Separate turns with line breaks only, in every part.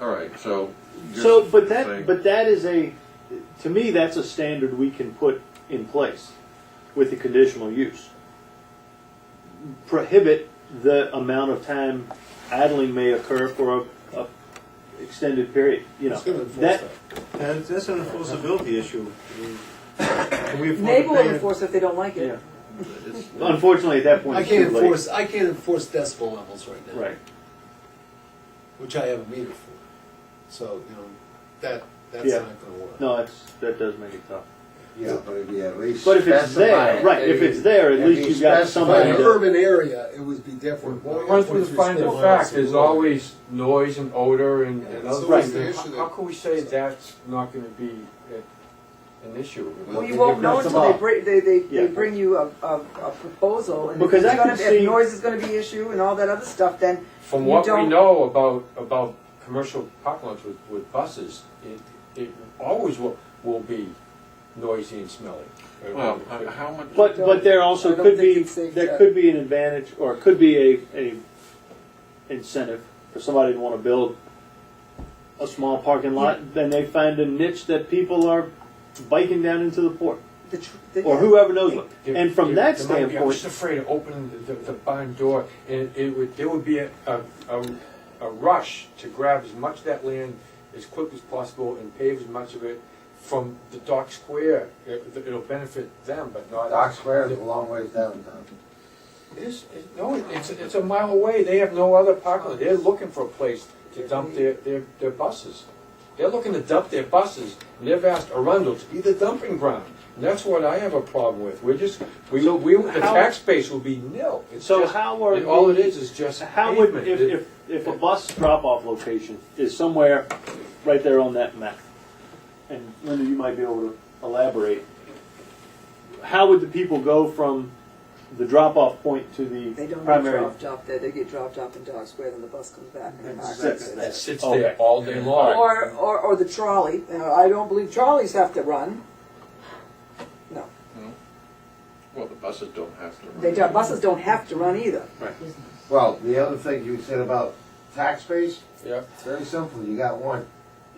all right, so. you're
So, but
saying-
that, but that is a, to me, that's a standard we can put in place with the conditional use. Prohibit the amount of time idling may occur for a, a extended period, you know.
It's gonna enforce
That,
that.
That's, that's an enforceability issue. I mean, Can we afford
They
to
will
pay it?
enforce if they don't like
yeah.
it.
it's-
Unfortunately, at that point,
I
it's too
can't
late.
enforce, I can't enforce decibel levels right now.
Right,
Which I have a meter for. So, you know, that, that's
Yeah.
not gonna work.
no, that's, that does make it tough.
Yeah, but if you at least
But if it's
specify
there,
it,
right, if it's there, at
if
least
you
you've got
If I
specify
somebody
had an
it,
to.
urban area, it would be different.
Once we find the fact, there's always noise and odor and, and
That's
other
always
things.
the issue
How how can we say that's not gonna be a- an issue?
Well, you
Well,
won't
you
know
cut them
until they
off.
bring, they, they, they
Yeah.
bring you a, a, a proposal and if
Because
it's
I
gonna
could
be-
see-
if noise is gonna be issue and all that other stuff, then
From
You
what we
don't-
know about, about commercial parking lots with, with buses, it, it always will, will be noisy and smelly.
Well, h- how much?
But, but there also
I don't
could
think
be,
it's safe
there
to-
could be an advantage, or could be a, a incentive for somebody to wanna build a small parking lot, then they find a niche that people are biking down into the port,
the. tr- the-
or whoever knows what.
There-
And from
there-
that
there might be- I'm just
standpoint,
afraid of opening the, the barn door, and it would, there would be a, a, a- a rush to grab as much of that land as quick as possible and pave as much of it from the dock square. It, it'll benefit them, but not.
Dock Square is a long ways downtown.
It is, it- no, it's, it's a mile away, they have no other parking, lot. they're looking for a place to dump their, their, their buses. They're looking to dump their buses, and they've asked Arundel to be the dumping ground, and that's what I have a problem with, we're just, we, we, the
how-
tax base will be nil. It's
so
just-
how are?
and All it
we-
is is just
How would,
pavement.
if,
It-
if, if a bus drop-off location is somewhere right there on that map, and Linda, you might be able to elaborate, how would the people go from the drop-off point to
They
the
don't get
primary?
dropped off there, they get dropped off in Dock Square, then the bus comes back and they park.
Sits
It
there.
sits
Oh.
there all day long.
Or, or, or the trolley, and I don't believe trolleys have to run. No,
Well, the buses don't have to. run.
they don't, buses don't have to run either.
Well, the other thing you said about tax base,
Yeah.
it's very simple, you got one.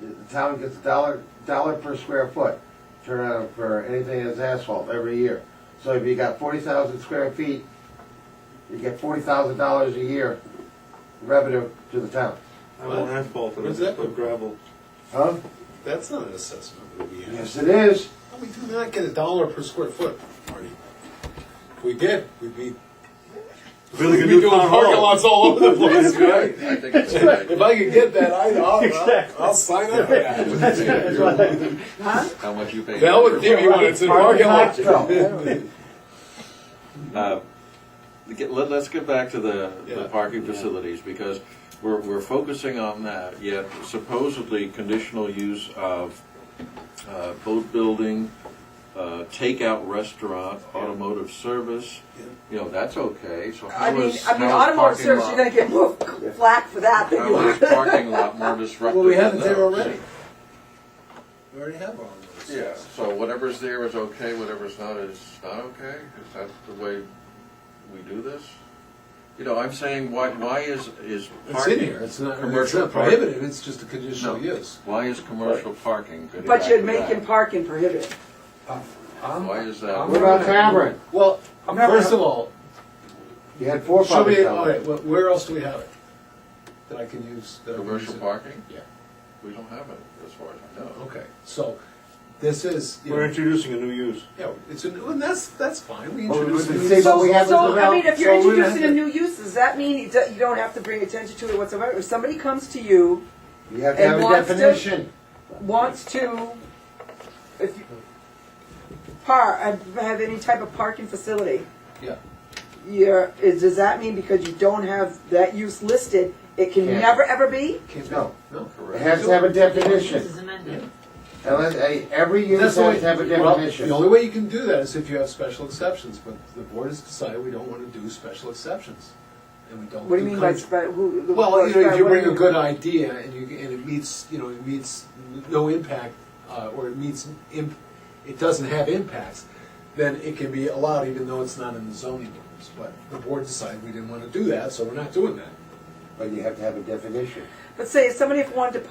The town gets a dollar, dollar per square foot turnout for anything that's asphalt every year. So if you got forty thousand square feet, you get forty thousand dollars a year revenue to the town.
I want asphalt and I
What's
just
that?
put gravel.
Huh?
That's not an assessment that we have.
Yes, it is.
We do not get a dollar per square foot, Marty. If we did, we'd be,
Really
we'd
good
be
new
doing
town
parking
hall.
lots all over the place, right?
I think it's a good
If
idea.
I could get that, I'd, I'll,
Exactly.
I'll sign up for that.
How much you pay?
That would give you one, it's a parking lot.
Uh, get- let, us get back to the,
Yeah.
the parking facilities, because we're, we're focusing on that, yet supposedly conditional use of, uh, boat building, uh, takeout restaurant, automotive service,
Yeah.
you know, that's okay, so
I
how
mean,
is, how
I
is
mean, automotive
parking
service,
lot-
you're gonna get more flack for that than you
How
are.
is parking lot more disruptive
Well, we
than
have it there
those?
already. We already have all those.
Yeah, so whatever's there is okay, whatever's not is not okay? Is that the way we do this? You know, I'm saying, why, why is, is
It's in
parking?
here, it's not, it's
Commercial
not
park.
prohibited, it's just a conditional
No.
use.
Why is commercial parking? good
But you're
back to
making
that?
parking prohibited.
I'm-
Why
Um,
is that?
I'm
What about
not-
Tavern?
Well,
I'm not-
first of all,
You had four
show
public
me,
taverns.
all right, well, where else do we have it? That I can use? that I can
Commercial
use it?
parking?
Yeah.
We don't have it, as far as I know.
Okay, so, this is, you
We're
know,
introducing a new use.
yeah, it's a, and that's, that's fine, we
Well, we
introduced.
wouldn't
new-
say
so-
what we have is
So, I
about-
mean, if you're
so we don't
introducing a
have to-
new use, does that mean you do- you don't have to bring attention to it whatsoever? If somebody comes to you,
You have to have
And
a
wants to-
definition.
wants to, if you, par, uh, have any type of parking facility,
Yeah,
you're, is, does that mean because you don't have that use listed, it can
Yeah.
never ever be?
can't,
No,
no.
it has to have a definition. Unless, eh, every use
That's
has to
the way-
have a
well,
definition.
The only way you can do that is if you have special exceptions, but the board has decided we don't want to do special exceptions, and we don't.
What do you mean by,
country-
spe- who? who-
Well, you know, if you
what
bring
do
a good idea and you, and it meets, you know, it meets no impact, uh, or it meets, imp- it doesn't have impacts, then it can be allowed even though it's not in the zoning ordinance. But the board decided we didn't want to do that, so we're not doing that.
But you have to have a definition.
But say, if somebody wanted to